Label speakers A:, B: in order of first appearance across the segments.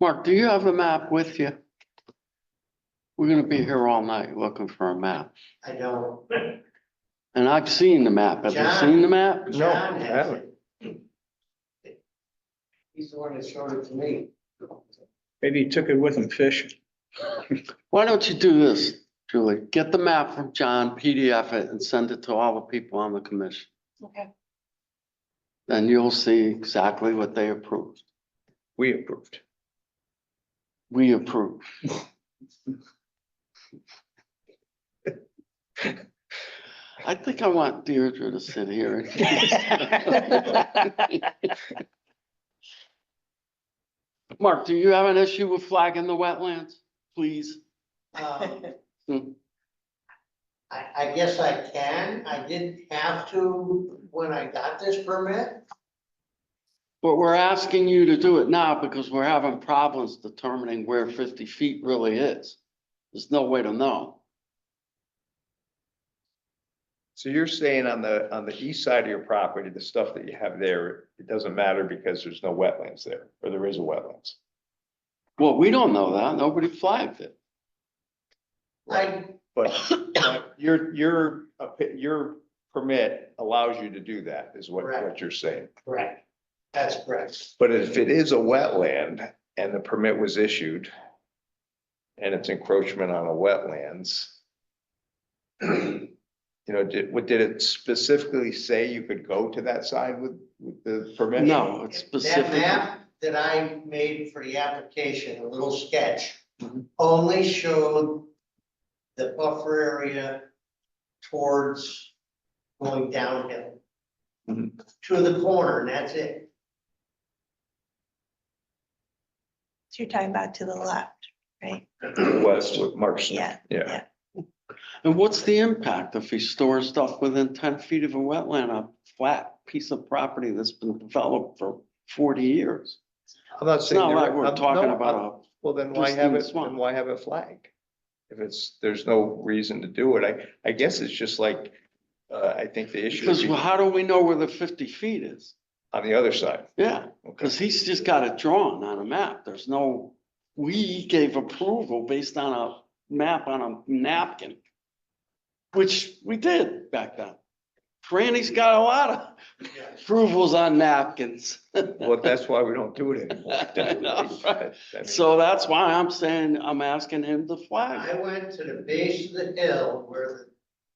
A: Mark, do you have a map with you? We're gonna be here all night looking for a map.
B: I don't.
A: And I've seen the map. Have you seen the map?
C: No,
B: John
C: I
B: has it. He's the one that showed it to me.
C: Maybe he took it with him fishing.
A: Why don't you do this, Julie? Get the map from John, PDF it, and send it to all the people on the commission.
D: Okay.
A: Then you'll see exactly what they approved.
C: We approved.
A: We approve. I think I want Deirdre to sit here. Mark, do you have an issue with flagging the wetlands, please?
B: Um,
A: Hmm.
B: I, I guess I can. I didn't have to when I got this permit.
A: But we're asking you to do it now because we're having problems determining where fifty feet really is. There's no way to know.
C: So you're saying on the, on the east side of your property, the stuff that you have there, it doesn't matter because there's no wetlands there, or there is a wetlands?
A: Well, we don't know that. Nobody flagged it.
B: I,
C: But but your, your, opi- your permit allows you to do that, is what, what
B: Correct.
C: you're saying.
B: correct. That's correct.
C: But if it is a wetland and the permit was issued and it's encroachment on a wetlands, you know, did, what, did it specifically say you could go to that side with, with the permit?
A: No, it's
B: That
A: specific.
B: map that I made for the application, a little sketch,
A: Mhm.
B: only showed the buffer area towards going downhill.
C: Mhm.
B: To the corner, and that's it.
D: So you're talking about to the left, right?
C: West with Mark's.
D: Yeah.
C: Yeah,
A: And what's the impact if he stores stuff within ten feet of a wetland, a flat piece of property that's been developed for forty years?
C: I'm not
A: It's
C: saying.
A: not
C: there-
A: like we're
C: I'm-
A: talking
C: no, uh, I'm-
A: about
C: Well, then why have
A: pristine
C: it,
A: swamp.
C: then why have it flagged? If it's, there's no reason to do it, I, I guess it's just like, uh, I think the
A: a,
C: issue
A: because
C: is
A: well, how do we know where the fifty feet is?
C: on the other side.
A: Yeah,
C: Okay.
A: because he's just got it drawn on a map. There's no, we gave approval based on a map on a napkin. Which we did back then. Franny's got a lot of approvals on napkins.
C: Well, that's why we don't do it
A: I know, right.
C: anymore.
A: So that's why I'm saying, I'm asking him to flag.
B: I went to the base of the hill where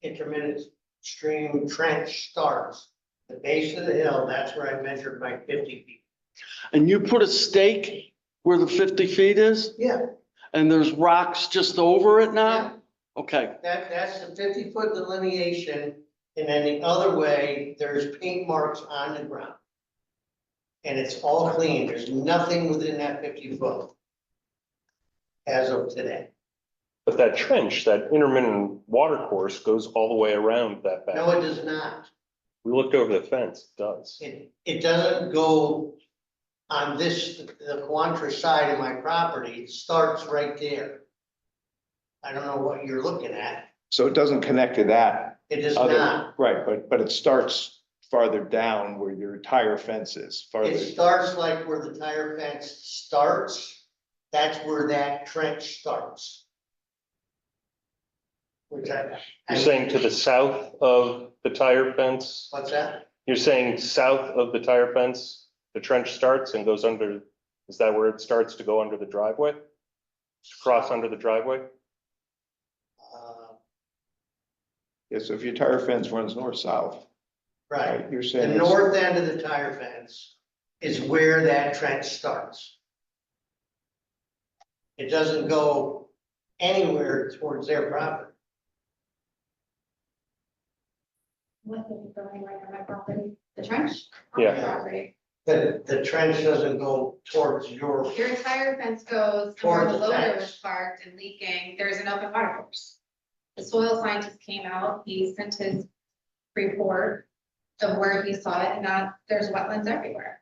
B: the intermittent stream trench starts. The base of the hill, that's where I measured my fifty feet.
A: And you put a stake where the fifty feet is
B: Yeah,
A: and there's rocks just over it
B: yeah,
A: now? Okay,
B: that, that's the fifty foot delineation, and then the other way, there's paint marks on the ground. And it's all clean, there's nothing within that fifty foot. As of today.
E: But that trench, that intermittent water course goes all the way around that
B: No,
E: back.
B: it does not.
E: We looked over the fence, it does.
B: It, it doesn't go on this, the Quantra side of my property, it starts right there. I don't know what you're looking at,
C: So it doesn't connect to that
B: it is
C: other,
B: not,
C: right, but, but it starts farther down where your tire fence is, farther.
B: it starts like where the tire fence starts, that's where that trench starts. Which I.
E: You're saying to the south of the tire fence,
B: What's that?
E: you're saying south of the tire fence, the trench starts and goes under, is that where it starts to go under the driveway? To Cross under the driveway?
B: Uh,
C: Yeah, so if your tire fence runs north-south,
B: Right,
C: right, you're
B: the
C: saying. it's-
B: north end of the tire fence is where that trench starts. It doesn't go anywhere towards their property.
F: What is going right on my property, the trench? on
E: Yeah.
F: my property.
B: The, the trench doesn't go towards your,
F: Your entire fence goes to
B: Towards
F: where the
B: the
F: loader
B: fence.
F: was parked and leaking, there's an open water course. The soil scientist came out, he sent his report of where he saw it, and now there's wetlands everywhere.